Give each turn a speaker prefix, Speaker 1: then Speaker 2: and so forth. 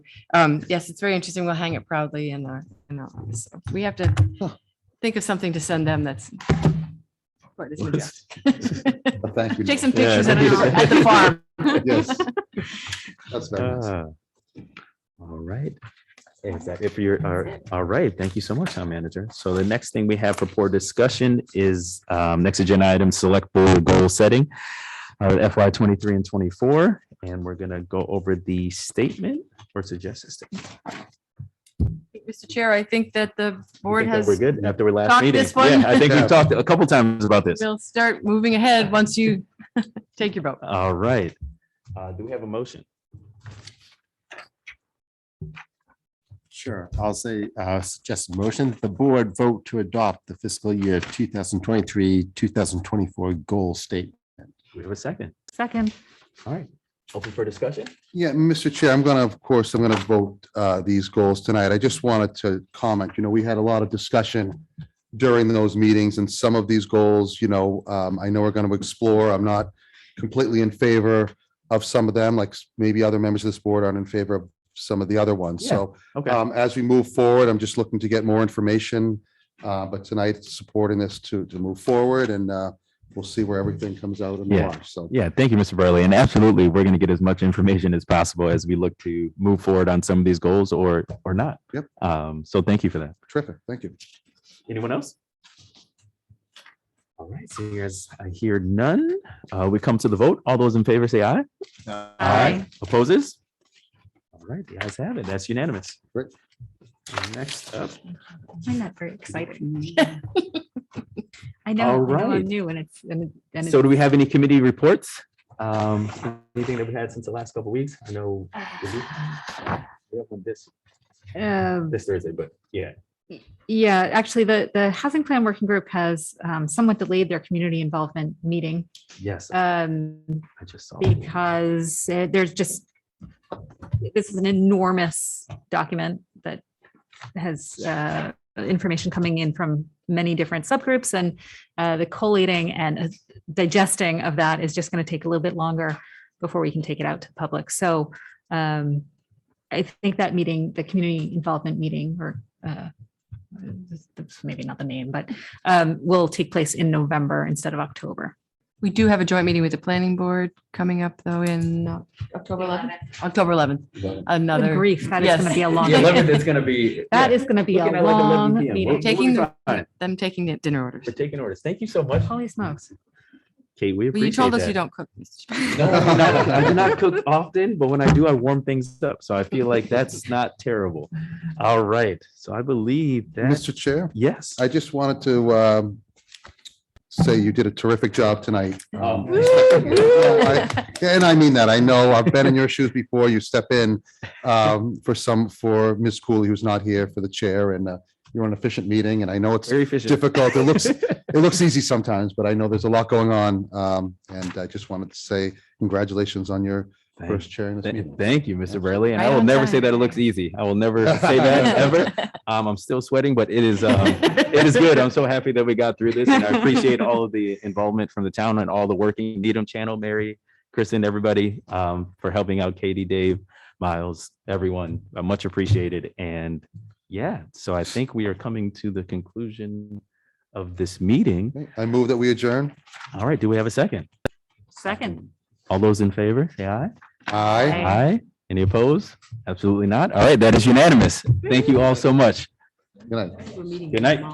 Speaker 1: Um, yes, it's very interesting. We'll hang it proudly in our, in our office. We have to think of something to send them that's. for this new job.
Speaker 2: Well, Thank you.
Speaker 1: Take
Speaker 2: Neil.
Speaker 1: some pictures at
Speaker 2: Yeah.
Speaker 1: at the farm.
Speaker 2: Yes. That's very nice.
Speaker 3: Ah. All right. If that, if you're, are- all right, thank you so much, town manager. So the next thing we have for board discussion is um, next agenda item, select board goal setting. uh, FY twenty-three and twenty-four, and we're gonna go over the statement or suggested. statement.
Speaker 1: Mr. Chair, I think that the
Speaker 3: You
Speaker 1: board
Speaker 3: think that
Speaker 1: has,
Speaker 3: We're good after our last
Speaker 1: talked
Speaker 3: meeting.
Speaker 1: this one?
Speaker 3: Yeah, I think we've talked a couple times about this.
Speaker 1: will start moving ahead once you take your vote.
Speaker 3: All right. Uh, Do we have a motion?
Speaker 2: Sure. I'll say, uh, suggest a motion that the board vote to adopt the fiscal year two thousand twenty-three, two thousand twenty-four goal state.
Speaker 3: Do we have a second?
Speaker 4: Second,
Speaker 3: All right. Open for discussion?
Speaker 5: Yeah, Mr. Chair, I'm gonna, of course, I'm gonna vote uh, these goals tonight. I just wanted to comment, you know, we had a lot of discussion during those meetings and some of these goals, you know, um, I know we're gonna explore. I'm not completely in favor of some of them, like maybe other members of this board aren't in favor of some of the other ones. So
Speaker 3: Okay.
Speaker 5: um, as we move forward, I'm just looking to get more information. uh, But tonight, supporting this to, to move forward and uh, we'll see where everything comes out in
Speaker 3: Yeah.
Speaker 5: March. So
Speaker 3: Yeah, thank you, Mr. Burley. And absolutely, we're going to get as much information as possible as we look to move forward on some of these goals or, or not.
Speaker 5: Yep.
Speaker 3: Um, so thank you for that.
Speaker 5: terrific. Thank you.
Speaker 3: Anyone else? All right, so here's, I hear none. Uh, we come to the vote. All those in favor say aye.
Speaker 4: Aye.
Speaker 3: Opposes? All right, the ayes have it. That's unanimous.
Speaker 5: Great.
Speaker 3: Next up,
Speaker 4: I'm not very excited. I know,
Speaker 3: All
Speaker 4: I know
Speaker 3: right.
Speaker 4: I'm new and it's, and it- and
Speaker 3: so
Speaker 4: it's,
Speaker 3: do we have any committee reports? Um, anything that we had since the last couple weeks? I know we have one this,
Speaker 4: um,
Speaker 3: this Thursday, but yeah.
Speaker 4: yeah, actually, the, the Housing Plan Working Group has um, somewhat delayed their community involvement meeting
Speaker 3: Yes,
Speaker 1: Uh,
Speaker 4: um,
Speaker 3: I just saw. that.
Speaker 4: because uh, there's just, this is an enormous document that has uh, information coming in from many different subgroups and uh, the collating and uh, digesting of that is just going to take a little bit longer before we can take it out to the public. So um, I think that meeting, the community involvement meeting, or uh, this- this- maybe not the name, but um, will take place in November instead of October.
Speaker 1: We do have a joint meeting with the planning board coming up though in uh, October 11th, October 11th,
Speaker 4: Good
Speaker 1: another.
Speaker 4: grief, that is going to
Speaker 1: Yes.
Speaker 4: be a long.
Speaker 3: The eleventh is gonna be.
Speaker 4: That
Speaker 3: yeah,
Speaker 4: is going to be a
Speaker 3: looking at like 11
Speaker 4: long
Speaker 3: PM. We'll-
Speaker 4: meeting.
Speaker 1: Taking
Speaker 3: we'll
Speaker 1: the-
Speaker 3: be fine.
Speaker 1: Them taking the dinner orders.
Speaker 3: We're taking orders. Thank you so much.
Speaker 4: Holy smokes.
Speaker 3: Kate,
Speaker 1: Well,
Speaker 3: we
Speaker 1: you
Speaker 3: appreciate
Speaker 1: told us
Speaker 3: that.
Speaker 1: you don't cook. Mr. Chair.
Speaker 3: No, no, no, I do not cook often, but when I do, I warm things up. So I feel like that's not terrible. All right. So I believe that,
Speaker 5: Mr. Chair?
Speaker 3: yes.
Speaker 5: I just wanted to um, say you did a terrific job tonight.
Speaker 3: Oh.
Speaker 5: Um, I- And I mean that. I know I've been in your shoes before. You step in um, for some, for Ms. Cooley, who's not here for the chair, and uh, you're an efficient meeting, and I know it's,
Speaker 3: Very efficient.
Speaker 5: difficult. It looks- it looks easy sometimes, but I know there's a lot going on. um, And I just wanted to say congratulations on your
Speaker 3: Thank
Speaker 5: first chair in this meeting.
Speaker 3: thank- thank you, Mr. Burley. And I
Speaker 1: Right
Speaker 3: will
Speaker 1: on
Speaker 3: never say
Speaker 1: time.
Speaker 3: that it looks easy. I will never say that ever. Um, I'm still sweating, but it is, um, it is good. I'm so happy that we got through this and I appreciate all of the involvement from the town and all the working Needham Channel, Mary, Kristen, everybody, um, for helping out Katie, Dave, Miles, everyone, uh, much appreciated. And yeah, so I think we are coming to the conclusion of this meeting.
Speaker 5: Okay, I move that we adjourn.
Speaker 3: All right, do we have a second?
Speaker 4: Second.
Speaker 3: All those in favor, say aye.
Speaker 5: Aye.
Speaker 4: Aye.
Speaker 3: Aye. Any opposed? Absolutely not. All right, that is unanimous. Thank you all so much.
Speaker 5: Good night.
Speaker 1: We're meeting
Speaker 3: Good night.